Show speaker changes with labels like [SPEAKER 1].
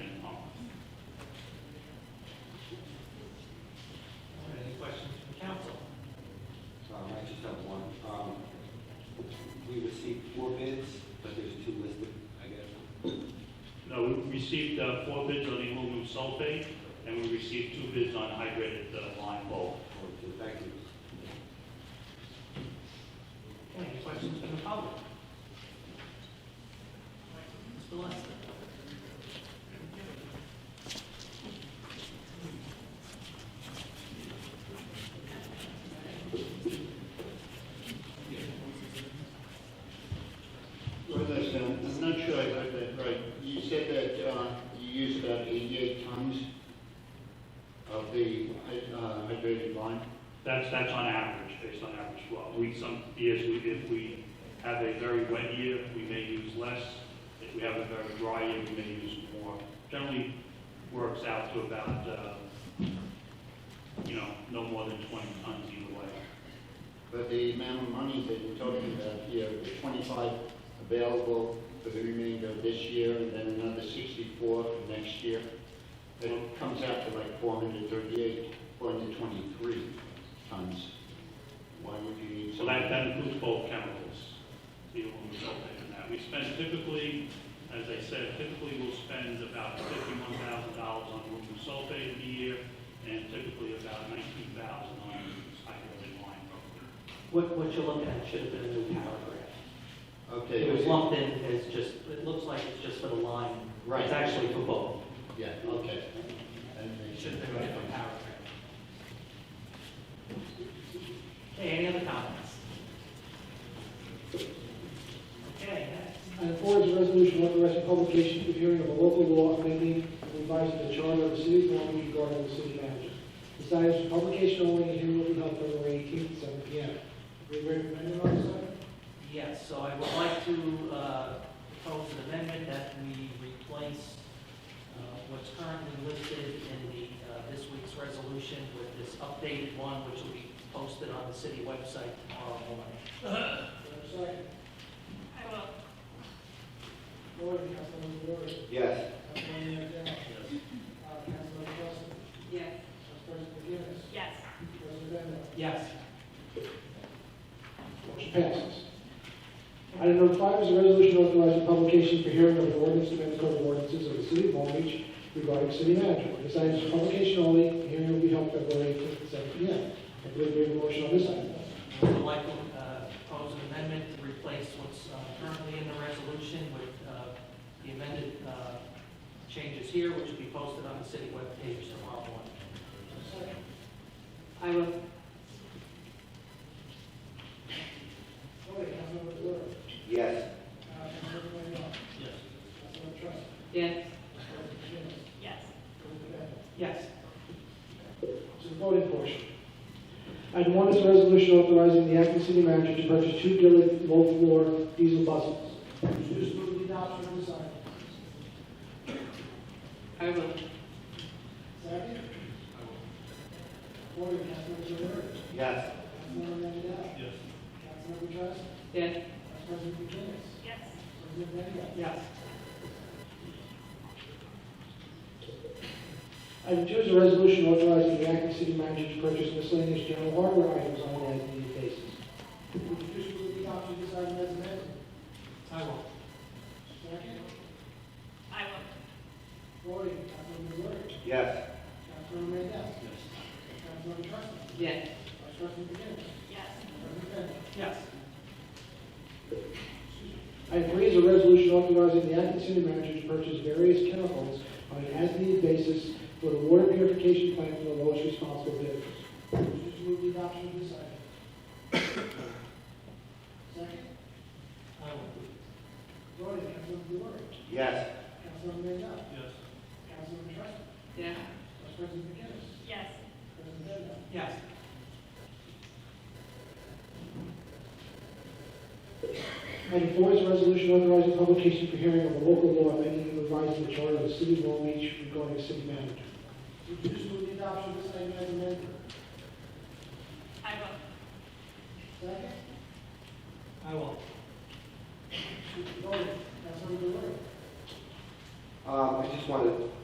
[SPEAKER 1] um,
[SPEAKER 2] uh, four bids on the aluminum sulfate, and we received two bids on hydrated uh, lime bulk.
[SPEAKER 1] Okay, thank you.
[SPEAKER 3] Any questions from the public? Mr. Lester?
[SPEAKER 4] Well, listen, I'm not sure I heard that right. You said that uh, you used about 88 tons of the uh, hydrated lime?
[SPEAKER 2] That's, that's on average, based on average flow. We, some years, we if we have a very wet year, we may use less. If we have a very dry year, we may use more. Generally works out to about, uh, you know, no more than 20 tons either way.
[SPEAKER 4] But the amount of money that you're talking about here, the 25 available for the remainder of this year, and then another 64 for next year, that comes out to like 438, 423 tons. Why would you need so
[SPEAKER 2] So that, that includes both chemicals, the aluminum sulfate and that. We spend typically, as I said, typically we'll spend about fifty-one thousand dollars on aluminum sulfate in a year, and typically about nineteen thousand on hydrogen lime.
[SPEAKER 3] What, what you're looking at should have been a new paragraph.
[SPEAKER 4] Okay.
[SPEAKER 3] It was lumped in as just, it looks like it's just for the line.
[SPEAKER 4] Right.
[SPEAKER 3] It's actually for both.
[SPEAKER 4] Yeah, okay. And they
[SPEAKER 3] It should have been a different paragraph. Okay, any other comments? Okay, next.
[SPEAKER 5] Item four is a resolution authorizing publication of hearing of a local law amending and revising the charter of the city of Long Beach regarding the city manager. This item is for publication only and hearing will be held February eighteenth, seven P M. We recommend it on this item?
[SPEAKER 3] Yes, so I would like to uh, propose an amendment that we replace uh, what's currently listed in the, uh, this week's resolution with this updated one, which will be posted on the city website tomorrow morning.
[SPEAKER 5] Is there a second?
[SPEAKER 6] I will.
[SPEAKER 5] Voting, Councilmember Bluer.
[SPEAKER 1] Yes.
[SPEAKER 5] Councilmember McDowell. Uh, Councilmember Preston.
[SPEAKER 6] Yes.
[SPEAKER 5] Vice President McGinnis.
[SPEAKER 6] Yes.
[SPEAKER 5] President Bender.
[SPEAKER 3] Yes,
[SPEAKER 5] Motion passes. Item number five is a resolution authorizing publication for hearing of an ordinance amendment code of ordinances of the city of Long Beach regarding city manager. This item is for publication only, and hearing will be held February 18th at 7 p.m. I believe we have a motion on this item.
[SPEAKER 3] I would like to uh, propose an amendment to replace what's uh, currently in the resolution with uh, the amended uh, changes here, which will be posted on the city webpage tomorrow morning.
[SPEAKER 6] I will.
[SPEAKER 5] Okay, Councilmember Bluer.
[SPEAKER 1] Yes.
[SPEAKER 5] uh, Councilmember Manuel.
[SPEAKER 3] Yes.
[SPEAKER 5] Councilmember Trust.
[SPEAKER 6] Yes.
[SPEAKER 5] President McGinnis.
[SPEAKER 6] Yes.
[SPEAKER 5] President Bender.
[SPEAKER 3] Yes.
[SPEAKER 5] to the voting portion. Item one is a resolution authorizing the acting city manager to purchase two Gillette low-floor diesel buses. Introduce move the adoption of this item.
[SPEAKER 6] I will.
[SPEAKER 5] Second? Voting, Councilmember Bluer.
[SPEAKER 1] Yes.
[SPEAKER 5] Councilmember Mandel.
[SPEAKER 2] Yes.
[SPEAKER 5] Councilmember Trust.
[SPEAKER 6] Yes.
[SPEAKER 5] Vice President McGinnis.
[SPEAKER 6] Yes.
[SPEAKER 5] President Bender.
[SPEAKER 3] Yes.
[SPEAKER 5] Item two is a resolution authorizing the acting city manager to purchase miscellaneous general hardware items on an as-needed basis. Introduce move the adoption of this item as amended.
[SPEAKER 3] I will.
[SPEAKER 5] Second?
[SPEAKER 6] I will.
[SPEAKER 5] Voting, Councilmember Bluer.
[SPEAKER 1] Yes.
[SPEAKER 5] Councilmember Mandel. Councilmember Trust.
[SPEAKER 3] Yes.
[SPEAKER 5] Vice President McGinnis.
[SPEAKER 6] Yes.
[SPEAKER 5] President Bender.
[SPEAKER 3] Yes.
[SPEAKER 5] Item three is a resolution authorizing the acting city manager to purchase various chemicals on an as-needed basis for the water purification plant for the lowest responsible bidders. Just move the adoption of this item. Second,
[SPEAKER 3] I will.
[SPEAKER 5] voting, Councilmember Bluer,
[SPEAKER 1] Yes.
[SPEAKER 5] Councilmember Mandel,
[SPEAKER 2] Yes.
[SPEAKER 5] Councilmember Trustin,
[SPEAKER 6] Yeah.
[SPEAKER 5] Vice President McGinnis,
[SPEAKER 6] Yes.
[SPEAKER 5] President Bender.
[SPEAKER 3] Yes.
[SPEAKER 5] Item four is a resolution authorizing publication for hearing of a local law amending and revising the charter of the city of Long Beach regarding city manager. Just move the adoption of this item as amended.
[SPEAKER 6] I will.
[SPEAKER 5] Second,
[SPEAKER 3] I will.
[SPEAKER 5] voting, Councilmember Bluer,
[SPEAKER 1] Um, I just wanted